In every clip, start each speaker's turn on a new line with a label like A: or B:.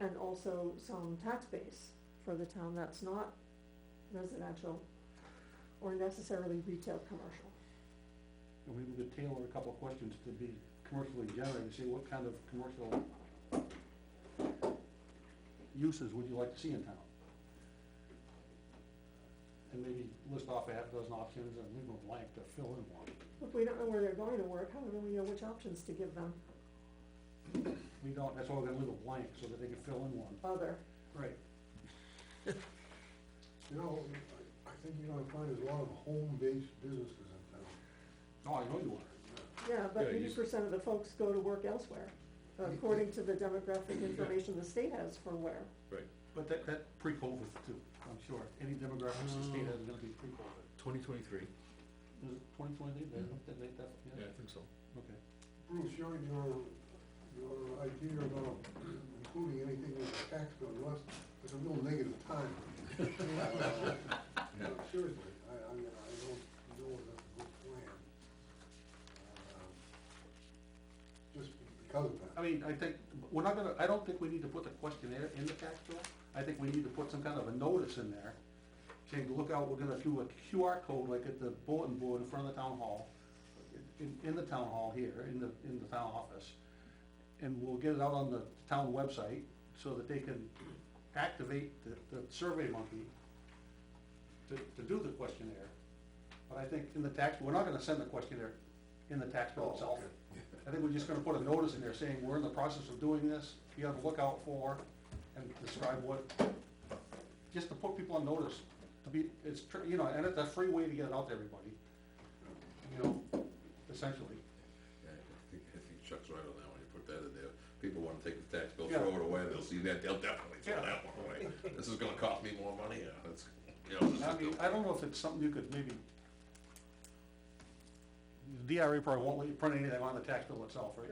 A: and also some tax base for the town that's not residential or necessarily retail commercial.
B: And maybe we could tailor a couple of questions to be commercially generated, see what kind of commercial uses would you like to see in town? And maybe list off a half dozen options and leave them blank to fill in one.
A: If we don't know where they're going to work, how do we know which options to give them
B: We don't, that's why we're gonna leave it blank, so that they can fill in one.
A: other?
B: Right.
C: You know, I I think you're gonna find there's a lot of home-based businesses in town.
B: Oh, I know you are.
A: Yeah, but
D: Yeah, you
A: eighty percent of the folks go to work elsewhere, according to the demographic information the state has for where.
D: Right,
B: But that, that pre-COVID too, I'm sure. Any demographics the state has is gonna be pre-COVID.
D: twenty twenty-three,
B: Is it twenty twenty, they, they, they, that,
D: yeah,
B: yeah,
D: I think so.
B: okay.
C: Bruce, your, your, your idea about including anything with a tax bill, unless, it's a real negative time. No, Seriously, I, I, mean, I don't know if that's a good plan. um, Uh, Just because of
B: I
C: that.
B: mean, I think, we're not gonna, I don't think we need to put the questionnaire in the tax bill. I think we need to put some kind of a notice in there, saying, look out, we're gonna do a QR code like at the bulletin board in front of the town hall, in, in the town hall here, in the, in the town office. And we'll get it out on the town website so that they can activate the, the survey monkey to, to do the questionnaire. But I think in the tax, we're not gonna send the questionnaire in the tax bill itself. I think we're just gonna put a notice in there saying, we're in the process of doing this, be on the lookout for, and describe what, just to put people on notice, to be, it's, tr- you know, and it's a free way to get it out to everybody, you know, essentially.
E: Yeah, I think, I think Chuck's right on that one, you put that in there, people wanna take the tax bill,
B: Yeah.
E: throw it away, they'll see that, they'll definitely throw
B: Yeah.
E: that one away. This is gonna cost me more money, yeah, that's, you know, this
B: I mean,
E: is,
B: I don't know if it's something you could maybe, the DRA probably won't let you print anything on the tax bill itself, right?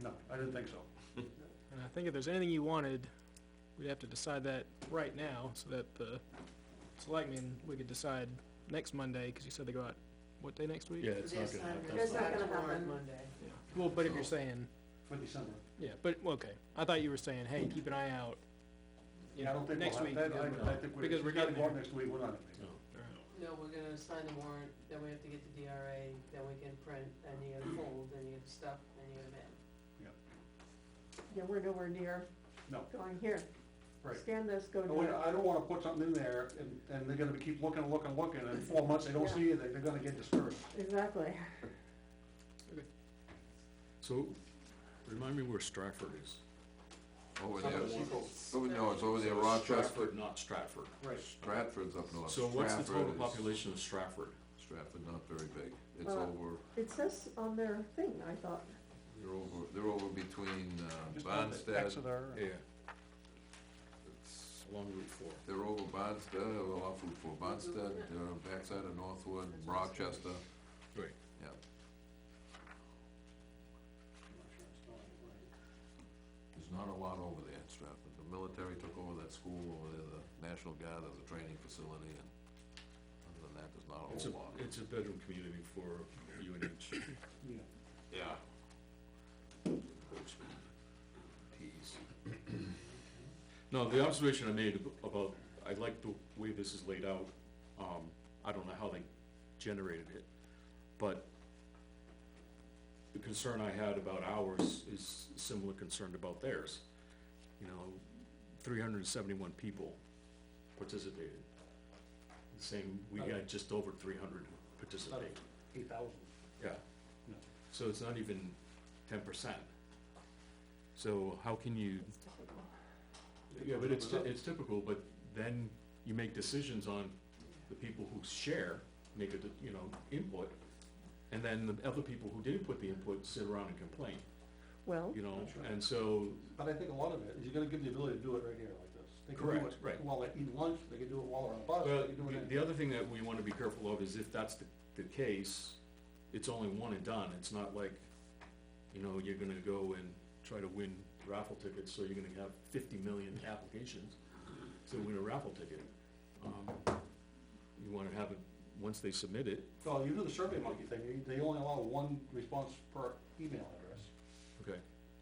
B: No, I didn't think so.
F: And I think if there's anything you wanted, we'd have to decide that right now, so that the selectmen, we could decide next Monday, because you said they go out, what day next week?
D: Yeah, it's not gonna happen.
A: It's not gonna happen.
G: Monday.
F: Yeah. Well, but if you're saying,
B: For December.
F: yeah, but, well, okay, I thought you were saying, hey, keep an eye out, you
B: Yeah, I
F: know,
B: don't think we'll
F: next
B: have-
F: week.
B: that-
F: then we're
B: I, I
F: not.
B: think
F: because
B: we're,
F: we're
B: we gotta
F: getting
B: go out
F: there.
B: next week, we're not. gonna make it.
D: No.
G: No, we're gonna sign the warrant, then we have to get the DRA, then we can print, then you gotta fold, then you gotta stuff, then you gotta mail.
A: Yeah, we're nowhere near
B: No,
A: going here.
B: right.
A: Scan this, go
B: No, wait, uh,
A: to,
B: I don't wanna put something in there and, and they're gonna be keep looking, looking, looking, and in four months they don't see it, they're gonna get discouraged.
A: exactly.
D: So, remind me where Stratford is.
E: over
B: Some
E: there,
B: of the people-
E: it's over, no, it's over there, Rochester,
D: Stratford, not Stratford.
B: Right.
E: Stratford's up north.
D: So what's the
E: Stratford
D: total
E: is-
D: population of Stratford?
E: Stratford, not very big, it's
A: Uh,
E: over,
A: It says on their thing, I thought,
E: they're over, they're over between, uh,
B: Just on the
E: Bonstead,
B: Exeter.
D: Yeah,
E: it's-
D: along Route Four.
E: they're over Bonstead, or off Route Four, Bonstead, uh, backside of Northwood, Rochester,
D: Right.
E: yeah. There's not a lot over there in Stratford. The military took over that school over there, the National Guard, there's a training facility, and other than that, there's not a
D: It's a,
E: whole lot.
D: it's a bedroom community for UNH.
B: Yeah.
E: Yeah.
D: Peas. No, the observation I made ab- about, I like the way this is laid out, um, I don't know how they generated it, but the concern I had about ours is similar concern about theirs. You know, three hundred and seventy-one people participated. The Same, we had just over three hundred participate,
B: Eight thousand.
D: yeah. So it's not even ten percent. So how can you
A: it's typical.
D: yeah, but it's, ty- it's typical, but then you make decisions on the people who share, make a, d- you know, input, and then the other people who didn't put the input sit around and complain,
A: Well,
D: you know,
B: That's right.
D: and so,
B: But I think a lot of it is you're gonna give the ability to do it right here like this. They can do
D: Correct,
B: it
D: right.
B: While they eat lunch, they can do it while they're on a
D: well,
B: bus, they can do
D: the-
B: it.
D: the other thing that we wanna be careful of is if that's the, the case, it's only one and done, it's not like, you know, you're gonna go and try to win raffle tickets, so you're gonna have fifty million applications to win a raffle ticket. Um, You wanna have it, once they submit it,
B: Well, you do the survey monkey thing, you- they only allow one response per email,